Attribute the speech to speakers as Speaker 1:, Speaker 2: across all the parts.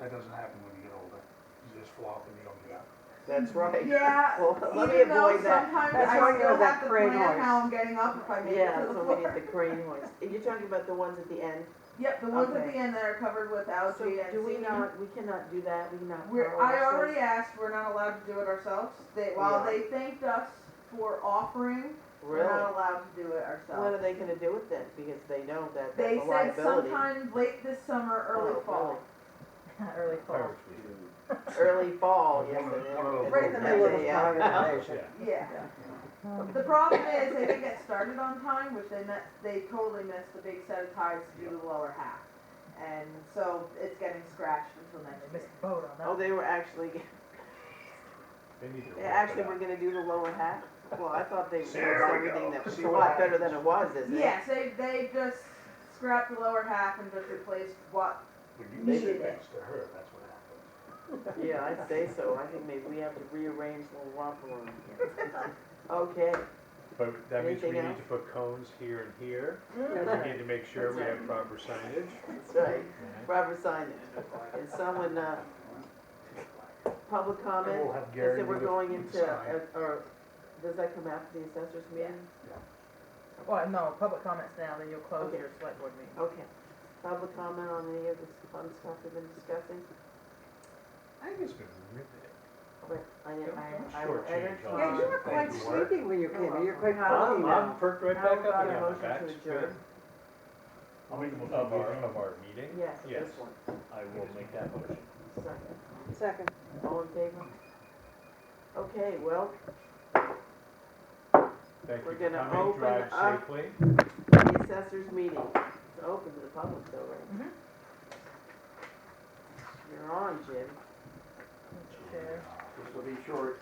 Speaker 1: That doesn't happen when you get older. You just flop and you don't get up.
Speaker 2: That's right.
Speaker 3: Yeah,
Speaker 2: Well, let me
Speaker 3: even though
Speaker 2: avoid that.
Speaker 3: sometimes
Speaker 4: That's
Speaker 3: I
Speaker 4: why you
Speaker 3: still
Speaker 4: have that
Speaker 3: have to
Speaker 4: crane
Speaker 3: plan how
Speaker 4: horse.
Speaker 3: I'm getting up if I make it
Speaker 2: Yeah,
Speaker 3: to the
Speaker 2: so we need
Speaker 3: floor.
Speaker 2: the crane horse. You're talking about the ones at the end?
Speaker 3: Yep, the ones at
Speaker 2: Okay.
Speaker 3: the end that are covered with
Speaker 2: So
Speaker 3: algae and
Speaker 2: do we
Speaker 3: seaweed.
Speaker 2: not, we cannot do that, we cannot.
Speaker 3: We're,
Speaker 2: borrow
Speaker 3: I
Speaker 2: ourselves?
Speaker 3: already asked, we're not allowed to do it ourselves. They, while
Speaker 2: Yeah.
Speaker 3: they thanked us for offering, we're
Speaker 2: Really?
Speaker 3: not allowed to do it
Speaker 2: What are
Speaker 3: ourselves.
Speaker 2: they gonna do with it? Because they know that
Speaker 3: They
Speaker 2: that's a
Speaker 3: said
Speaker 2: liability.
Speaker 3: sometime late this summer, early
Speaker 2: Oh,
Speaker 3: fall.
Speaker 4: Early fall.
Speaker 2: really? Early fall, yes
Speaker 1: One
Speaker 2: it
Speaker 1: of-
Speaker 2: is.
Speaker 1: one of those
Speaker 3: Right in the middle of the
Speaker 2: Yeah.
Speaker 1: Yeah.
Speaker 3: Yeah. The problem is, they didn't get started on time, which they met, they totally missed the big set of ties to do the lower half. And so it's getting scratched until next
Speaker 4: Missed
Speaker 3: year.
Speaker 4: the boat on that.
Speaker 2: Oh, they were actually,
Speaker 1: They need to
Speaker 2: they
Speaker 1: work
Speaker 2: actually
Speaker 1: it
Speaker 2: were
Speaker 1: out.
Speaker 2: gonna do the lower half? Well, I thought they fixed
Speaker 1: There we go.
Speaker 2: everything that was
Speaker 1: See
Speaker 2: a
Speaker 1: what
Speaker 2: lot better
Speaker 1: happens.
Speaker 2: than it was, isn't it?
Speaker 3: Yes, they, they just scrapped the lower half and just replaced what,
Speaker 1: When you
Speaker 3: They
Speaker 1: say
Speaker 3: did it.
Speaker 1: things to her, that's what happens.
Speaker 2: Yeah, I'd say so. I think maybe we have to rearrange the romper room. Okay.
Speaker 5: But that means we
Speaker 2: Anything
Speaker 5: need
Speaker 2: else?
Speaker 5: to put cones here and here. We
Speaker 2: That's
Speaker 5: need to make sure we
Speaker 2: That's
Speaker 5: have proper signage.
Speaker 2: right. Robert signed it. Is someone, uh, public
Speaker 1: And
Speaker 5: Oh,
Speaker 2: comment?
Speaker 1: we'll have
Speaker 2: I
Speaker 1: Gary
Speaker 2: said
Speaker 1: do
Speaker 2: we're
Speaker 1: the-
Speaker 2: going
Speaker 1: the
Speaker 2: into,
Speaker 1: sign.
Speaker 2: uh, or, does that come after the assessors meeting?
Speaker 4: Well, no, public comments now, then you'll close
Speaker 2: Okay.
Speaker 4: your select board meeting.
Speaker 2: Okay. Public comment on any of this fun stuff we've been discussing?
Speaker 1: I think it's been riveting.
Speaker 2: But I, I, I.
Speaker 5: Shortchange all
Speaker 4: Yeah,
Speaker 5: those
Speaker 4: you
Speaker 5: who
Speaker 4: were
Speaker 5: think
Speaker 1: quite
Speaker 5: we
Speaker 1: sleepy
Speaker 4: when you
Speaker 2: came in. You're
Speaker 4: quite
Speaker 5: I'm, I'm
Speaker 4: now.
Speaker 5: perked right
Speaker 2: Now
Speaker 5: back
Speaker 2: we've got
Speaker 5: up
Speaker 2: a
Speaker 5: again.
Speaker 2: motion
Speaker 5: My
Speaker 2: to
Speaker 5: back's good.
Speaker 2: adjourn.
Speaker 1: I'll make a motion
Speaker 5: Of
Speaker 1: to
Speaker 5: our,
Speaker 1: adjourn.
Speaker 5: of our meeting?
Speaker 2: Yes,
Speaker 5: Yes,
Speaker 2: this one.
Speaker 5: I will make that motion.
Speaker 2: Second.
Speaker 4: Second.
Speaker 2: All in favor? Okay, well,
Speaker 5: Thank you
Speaker 2: We're
Speaker 5: for
Speaker 2: gonna
Speaker 5: coming.
Speaker 2: open
Speaker 5: Drive
Speaker 2: up-
Speaker 5: safely.
Speaker 2: the assessors meeting, it's open to the public though, right?
Speaker 4: Mhm.
Speaker 2: You're on, Jim,
Speaker 6: This will be short.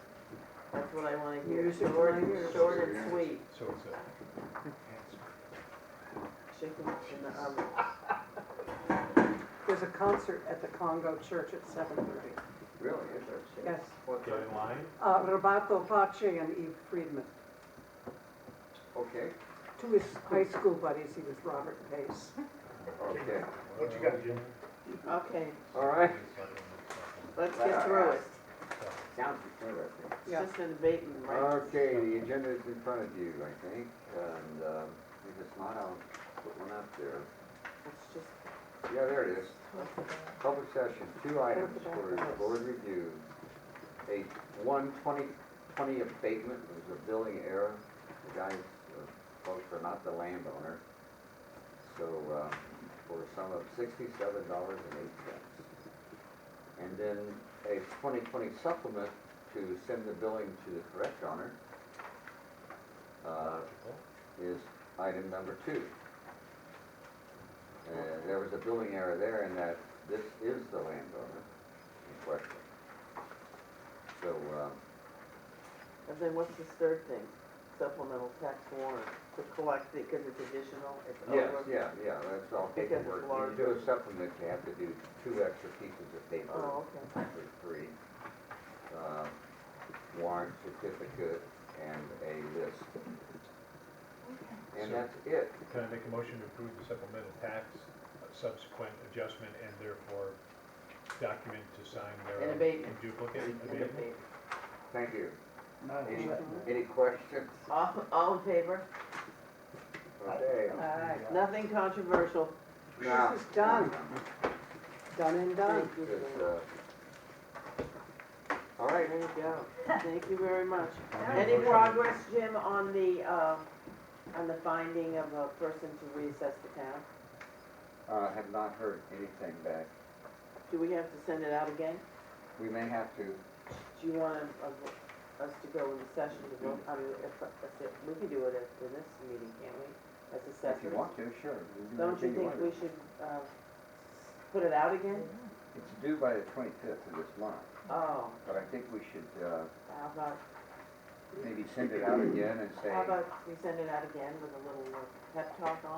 Speaker 2: that's what I wanna hear,
Speaker 6: Use your
Speaker 2: short,
Speaker 6: language.
Speaker 2: short and sweet,
Speaker 5: So it's a.
Speaker 2: chicken in the oven.
Speaker 7: There's a concert at the Congo Church at seven thirty.
Speaker 6: Really?
Speaker 7: Yes,
Speaker 6: What
Speaker 5: Get
Speaker 6: time?
Speaker 5: in line.
Speaker 7: uh, Roberto Pace and Eve Friedman,
Speaker 6: Okay,
Speaker 7: two of his high school buddies, he was Robert Pace.
Speaker 6: okay,
Speaker 1: What you got, Jim?
Speaker 2: Okay,
Speaker 6: all right.
Speaker 2: let's get through it,
Speaker 6: Sounds interesting.
Speaker 2: it's just an abatement, right?
Speaker 6: Okay, the agenda is in front of you, I think, and um, if it's not, I'll put one up there.
Speaker 2: It's just,
Speaker 6: Yeah, there it is. Public session, two items for board review. A one twenty, twenty abatement, it was a billing error. The guys, uh, folks are not the landowner. So, uh, for a sum of sixty-seven dollars and eight cents. And then a twenty twenty supplement to send the billing to the correct owner, uh, is item number two. And there was a billing error there in that this is the landowner in question. So, um,
Speaker 2: and then what's this third thing, supplemental tax warrant, to collect it, cause it's additional, it's
Speaker 6: yes,
Speaker 2: over.
Speaker 6: oh, yeah, yeah, that's all
Speaker 2: Because it's
Speaker 6: paperwork. When you do
Speaker 2: larger.
Speaker 6: a supplement, you have to do two extra pieces of paper.
Speaker 2: Oh, okay.
Speaker 6: actually three, um, warrant certificate and a list. And that's it.
Speaker 5: Can I make a motion to approve the supplemental tax, uh, subsequent adjustment, and therefore document to sign thereof?
Speaker 2: An abatement.
Speaker 5: in Duplicate,
Speaker 2: An
Speaker 5: abatement?
Speaker 2: abatement.
Speaker 6: Thank you.
Speaker 1: No,
Speaker 6: Any,
Speaker 1: it's-
Speaker 6: any questions?
Speaker 2: All, all in favor,
Speaker 6: Okay.
Speaker 7: Aye,
Speaker 2: nothing controversial,
Speaker 6: Now-
Speaker 7: This is done. done and done.
Speaker 2: thank you.
Speaker 6: It's, uh, All right,
Speaker 2: There you go. Thank you very much.
Speaker 1: I'll make a
Speaker 2: Any
Speaker 1: motion.
Speaker 2: progress, Jim, on the, uh, on the finding of a person to reassess the town?
Speaker 6: Uh, have not heard anything back.
Speaker 2: Do we have to send it out again?
Speaker 6: We may have to,
Speaker 2: Do you want uh, us to go into session to vote? I mean, if, if it- we can do it at the next meeting, can't we? As
Speaker 6: if you
Speaker 2: assessors?
Speaker 6: want to, sure. we can do
Speaker 2: Don't you
Speaker 6: anything
Speaker 2: think
Speaker 6: want.
Speaker 2: we should, uh, put it out again?
Speaker 6: It's due by the twenty-fifth of this month,
Speaker 2: Oh,
Speaker 6: but I think we should, uh,
Speaker 2: how about,
Speaker 6: maybe send it out again and say.
Speaker 2: how about we send it out again with a little uh, pep talk on?